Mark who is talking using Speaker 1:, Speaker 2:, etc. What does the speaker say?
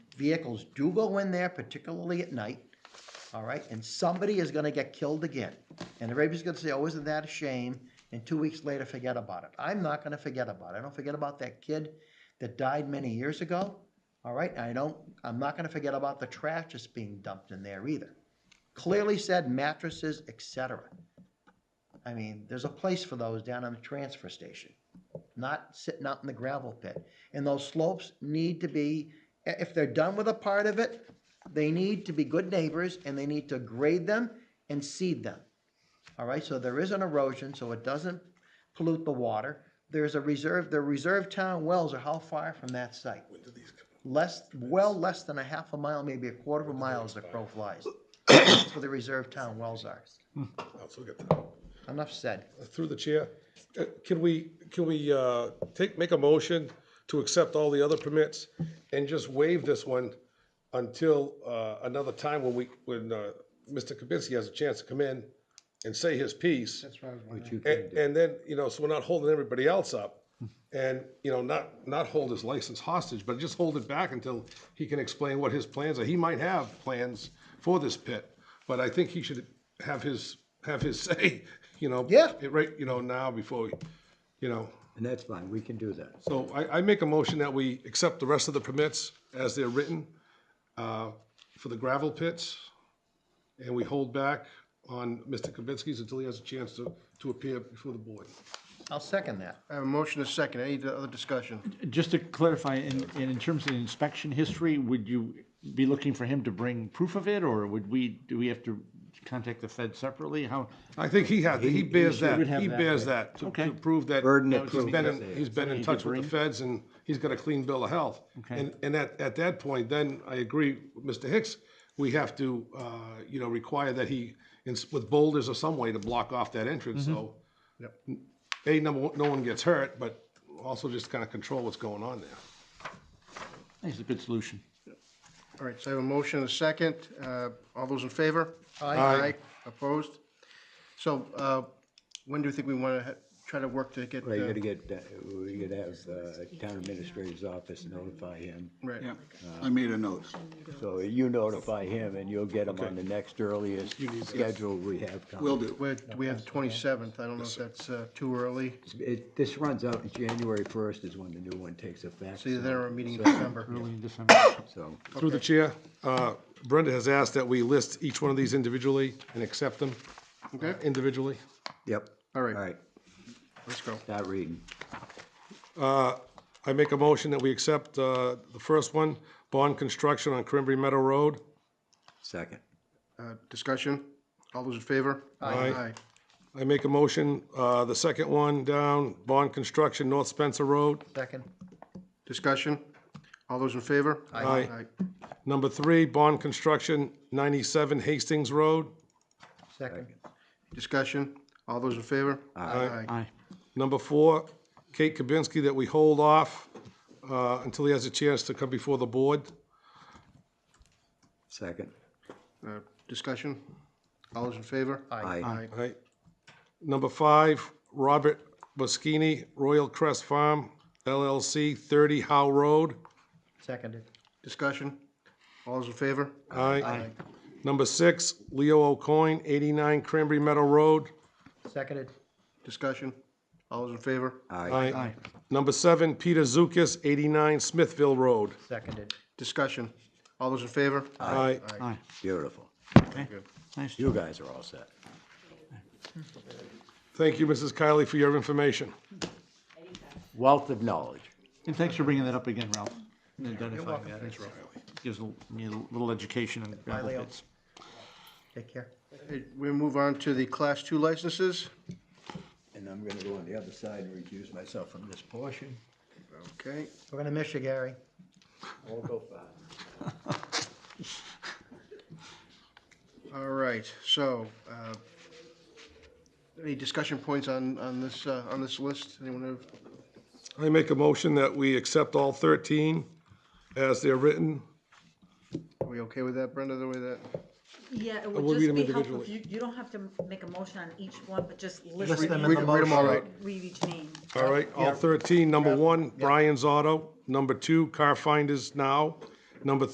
Speaker 1: vehicles do go in there, particularly at night, all right, and somebody is gonna get killed again. And the rabies is gonna say, oh, isn't that a shame? And two weeks later, forget about it. I'm not gonna forget about it. I don't forget about that kid that died many years ago, all right? I don't, I'm not gonna forget about the trash that's being dumped in there either. Clearly said mattresses, et cetera. I mean, there's a place for those down in the transfer station, not sitting out in the gravel pit. And those slopes need to be, i- if they're done with a part of it, they need to be good neighbors and they need to grade them and seed them. All right, so there is an erosion, so it doesn't pollute the water. There's a reserve, the reserve town wells are how far from that site?
Speaker 2: When do these come up?
Speaker 1: Less, well less than a half a mile, maybe a quarter of a mile as the crow flies. That's where the reserve town wells are.
Speaker 2: Oh, so we got that.
Speaker 1: Enough said.
Speaker 2: Through the chair, uh, can we, can we uh, take, make a motion to accept all the other permits and just waive this one until uh, another time when we, when uh, Mr. Kibitsky has a chance to come in and say his piece? That's right. And, and then, you know, so we're not holding everybody else up and, you know, not, not hold his license hostage, but just hold it back until he can explain what his plans are. He might have plans for this pit, but I think he should have his, have his say, you know?
Speaker 1: Yeah.
Speaker 2: it Right, you know, now before, we you know,
Speaker 3: And that's fine, we can do that.
Speaker 2: so I, I make a motion that we accept the rest of the permits as they're written uh, for the gravel pits, and we hold back on Mr. Kavitsky's until he has a chance to, to appear before the board.
Speaker 1: I'll second that.
Speaker 4: I have a motion and a second. Any other discussion?
Speaker 5: Just to clarify, in, in in terms of the inspection history, would you be looking for him to bring proof of it, or would we, do we have to contact the Fed separately? How,
Speaker 2: I think he has, he bears that,
Speaker 5: would have
Speaker 2: he
Speaker 5: that,
Speaker 2: bears that, to
Speaker 5: Okay.
Speaker 2: to prove that
Speaker 3: Burden of
Speaker 2: he's
Speaker 3: proof.
Speaker 2: been, in- he's been in
Speaker 5: Something
Speaker 2: touch
Speaker 5: he could
Speaker 2: with the
Speaker 5: bring.
Speaker 2: feds and he's got a clean bill of health. And, and at, at that point, then I agree with Mr. Hicks, we have to, uh, you know, require that he, ins- with boulders or some way to block off that entrance, so. A, number one, no one gets hurt, but also just kind of control what's going on there.
Speaker 5: is a good solution?
Speaker 4: All right, so I have a motion and a second. Uh, All those in favor?
Speaker 2: Aye.
Speaker 4: Opposed? So uh, when do you think we want to try to work to get?
Speaker 3: Well, you
Speaker 4: uh,
Speaker 3: gotta get, uh, we gotta have uh, town administrator's office notify him.
Speaker 4: Right.
Speaker 6: Yeah, I made a note.
Speaker 3: So you notify him and you'll get him on the next earliest schedule we have. coming.
Speaker 6: Will do.
Speaker 4: We're- We have the 27th. I don't know if that's uh, too early.
Speaker 3: It, this runs out January first is when the new one takes effect.
Speaker 4: It's either there or a
Speaker 3: so-
Speaker 4: meeting in December.
Speaker 5: Early in December?
Speaker 3: So,
Speaker 2: Through the chair, uh, Brenda has asked that we list each one of these individually and accept them
Speaker 4: Okay.
Speaker 2: individually.
Speaker 3: yep.
Speaker 4: All right.
Speaker 3: All right,
Speaker 4: Let's go.
Speaker 3: start reading.
Speaker 2: I make a motion that we accept uh, the first one, bond construction on Cranberry Meadow Road.
Speaker 3: Second.
Speaker 4: Uh, Discussion? All those in favor?
Speaker 2: Aye. I make a motion, uh, the second one down, bond construction North Spencer Road.
Speaker 1: Second.
Speaker 4: Discussion? All those in favor?
Speaker 2: Aye. Number three, bond construction 97 Hastings Road.
Speaker 1: Second.
Speaker 4: Discussion? All those in favor? Aye.
Speaker 5: Aye.
Speaker 2: Number four, Kate Kabinski, that we hold off uh, until he has a chance to come before the board.
Speaker 3: Second.
Speaker 4: Uh, Discussion? All those in favor?
Speaker 3: Aye.
Speaker 4: Aye.
Speaker 2: Right. Number five, Robert Boschini, Royal Crest Farm LLC, 30 Howe Road.
Speaker 1: Seconded.
Speaker 4: Discussion? All those in favor?
Speaker 2: Aye. Number six, Leo O'Coin, 89 Cranberry Meadow Road.
Speaker 1: Seconded.
Speaker 4: Discussion? All those in favor?
Speaker 3: Aye.
Speaker 2: Aye. Number seven, Peter Zukas, 89 Smithville Road.
Speaker 1: Seconded.
Speaker 4: Discussion? All those in favor?
Speaker 2: Aye.
Speaker 5: Aye.
Speaker 3: Beautiful.
Speaker 5: Nice.
Speaker 3: You guys are all set.
Speaker 2: Thank you, Mrs. Kylie, for your information.
Speaker 3: Wealth of knowledge.
Speaker 5: And thanks for bringing that up again, Ralph. and Identifying that. It's- Gives a- me a little education and gravel
Speaker 1: Leo.
Speaker 5: bits.
Speaker 1: Take care.
Speaker 4: Hey, We move on to the Class 2 licenses.
Speaker 3: And I'm gonna go on the other side and recuse myself from this portion.
Speaker 4: Okay.
Speaker 1: We're gonna miss you, Gary.
Speaker 3: All go fast.
Speaker 4: All right. So, uh, any discussion points on, on this, uh, on this list? Anyone have?
Speaker 2: I make a motion that we accept all 13 as they're written.
Speaker 4: Are we okay with that, Brenda, the way that?
Speaker 7: Yeah, it
Speaker 2: we'll
Speaker 7: would
Speaker 2: read
Speaker 7: just
Speaker 2: them
Speaker 7: be helpful if
Speaker 2: individually.
Speaker 7: you, you don't have to make a motion on each one, but just
Speaker 1: List
Speaker 7: list
Speaker 1: them
Speaker 7: them,
Speaker 1: in
Speaker 4: Read
Speaker 1: the
Speaker 4: them- read them all
Speaker 1: motion.
Speaker 4: out.
Speaker 7: read each name.
Speaker 2: All right, all 13. Number one, Brian's Auto. Number two, Car Finders Now. Number